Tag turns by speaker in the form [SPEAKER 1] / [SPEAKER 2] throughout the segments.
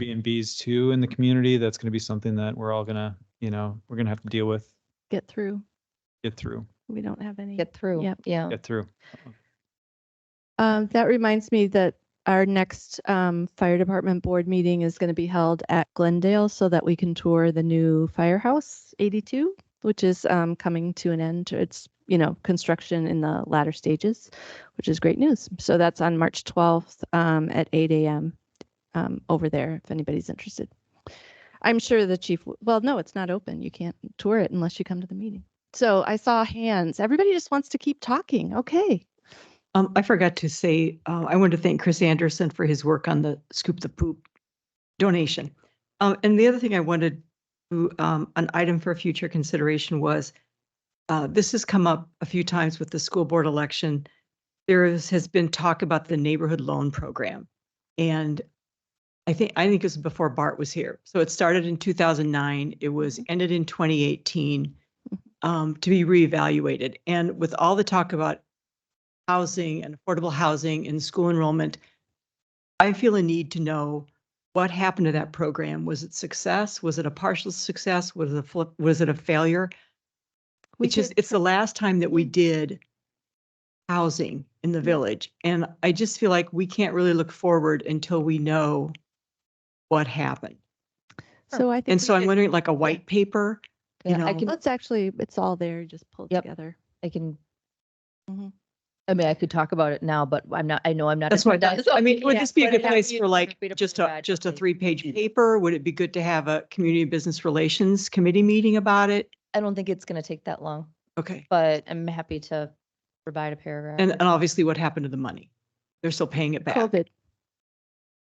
[SPEAKER 1] Airbnbs too in the community. That's going to be something that we're all gonna, you know, we're gonna have to deal with,
[SPEAKER 2] get through.
[SPEAKER 1] get through,
[SPEAKER 2] We don't have any.
[SPEAKER 3] Get through.
[SPEAKER 2] Yep.
[SPEAKER 3] Yeah.
[SPEAKER 1] get through.
[SPEAKER 2] Um, that reminds me that our next, um, fire department board meeting is going to be held at Glendale so that we can tour the new firehouse eighty-two, which is, um, coming to an end. It's, you know, construction in the latter stages, which is great news. So that's on March twelfth, um, at eight AM, um, over there, if anybody's interested. I'm sure the chief, w- well, no, it's not open. You can't tour it unless you come to the meeting. So I saw hands. Everybody just wants to keep talking. Okay.
[SPEAKER 4] Um, I forgot to say, uh, I wanted to thank Chris Anderson for his work on the Scoop the Poop donation. Um, and the other thing I wanted to, um, an item for future consideration was, uh, this has come up a few times with the school board election. There is, has been talk about the neighborhood loan program. And I think, I think it was before Bart was here. So it started in two thousand nine. It was ended in twenty eighteen um, to be reevaluated. And with all the talk about housing and affordable housing and school enrollment, I feel a need to know what happened to that program. Was it success? Was it a partial success? Was it a flip? Was it a failure?
[SPEAKER 2] We
[SPEAKER 4] It's just,
[SPEAKER 2] did Mm-hmm.
[SPEAKER 4] it's the last time that we did housing in the village. And I just feel like we can't really look forward until we know what happened.
[SPEAKER 2] So I think.
[SPEAKER 4] And
[SPEAKER 2] we
[SPEAKER 4] so I'm
[SPEAKER 2] should-
[SPEAKER 4] wondering, like a white paper? You
[SPEAKER 3] Yeah, I
[SPEAKER 4] know.
[SPEAKER 3] can,
[SPEAKER 2] Let's Um, actually, it's all there, just pulled
[SPEAKER 3] Yep.
[SPEAKER 2] together.
[SPEAKER 3] I can. Mm-hmm.
[SPEAKER 2] Mhm.
[SPEAKER 3] I mean, I could talk about it now, but I'm not, I know I'm not.
[SPEAKER 4] That's why,
[SPEAKER 3] agenda, so
[SPEAKER 4] I mean, would
[SPEAKER 3] yeah,
[SPEAKER 4] this be a
[SPEAKER 3] but
[SPEAKER 4] good
[SPEAKER 3] how do
[SPEAKER 4] place
[SPEAKER 3] you-
[SPEAKER 4] for like,
[SPEAKER 3] for me to
[SPEAKER 4] just a,
[SPEAKER 3] provide
[SPEAKER 4] just a
[SPEAKER 3] something?
[SPEAKER 4] three-page paper? Would it be good to have a community business relations committee meeting about it?
[SPEAKER 3] I don't think it's going to take that long,
[SPEAKER 4] Okay.
[SPEAKER 3] but I'm happy to provide a paragraph.
[SPEAKER 4] And, uh, and obviously what happened to the money? They're still paying it back.
[SPEAKER 2] COVID.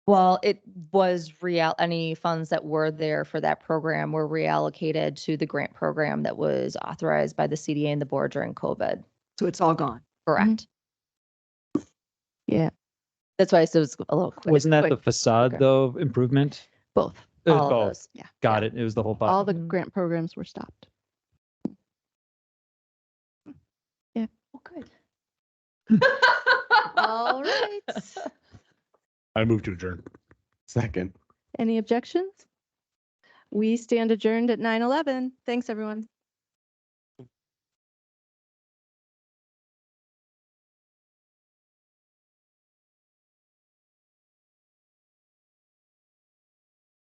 [SPEAKER 3] Well, it was real, any funds that were there for that program were reallocated to the grant program that was authorized by the CDA and the board during COVID.
[SPEAKER 4] So it's all gone.
[SPEAKER 3] Correct.
[SPEAKER 2] Yeah,
[SPEAKER 3] That's why I said it was a little quick.
[SPEAKER 1] Wasn't that the
[SPEAKER 3] quick,
[SPEAKER 1] facade
[SPEAKER 3] Okay.
[SPEAKER 1] though improvement?
[SPEAKER 2] both.
[SPEAKER 1] It was
[SPEAKER 3] all of
[SPEAKER 1] both.
[SPEAKER 3] those.
[SPEAKER 2] Yeah.
[SPEAKER 1] Got it. It was the whole
[SPEAKER 2] All
[SPEAKER 1] bottom.
[SPEAKER 2] the
[SPEAKER 3] Mhm.
[SPEAKER 2] grant programs were stopped.
[SPEAKER 3] Oh, good.
[SPEAKER 2] All right.
[SPEAKER 5] I move to adjourn. Second.
[SPEAKER 2] Any objections? We stand adjourned at nine eleven. Thanks, everyone.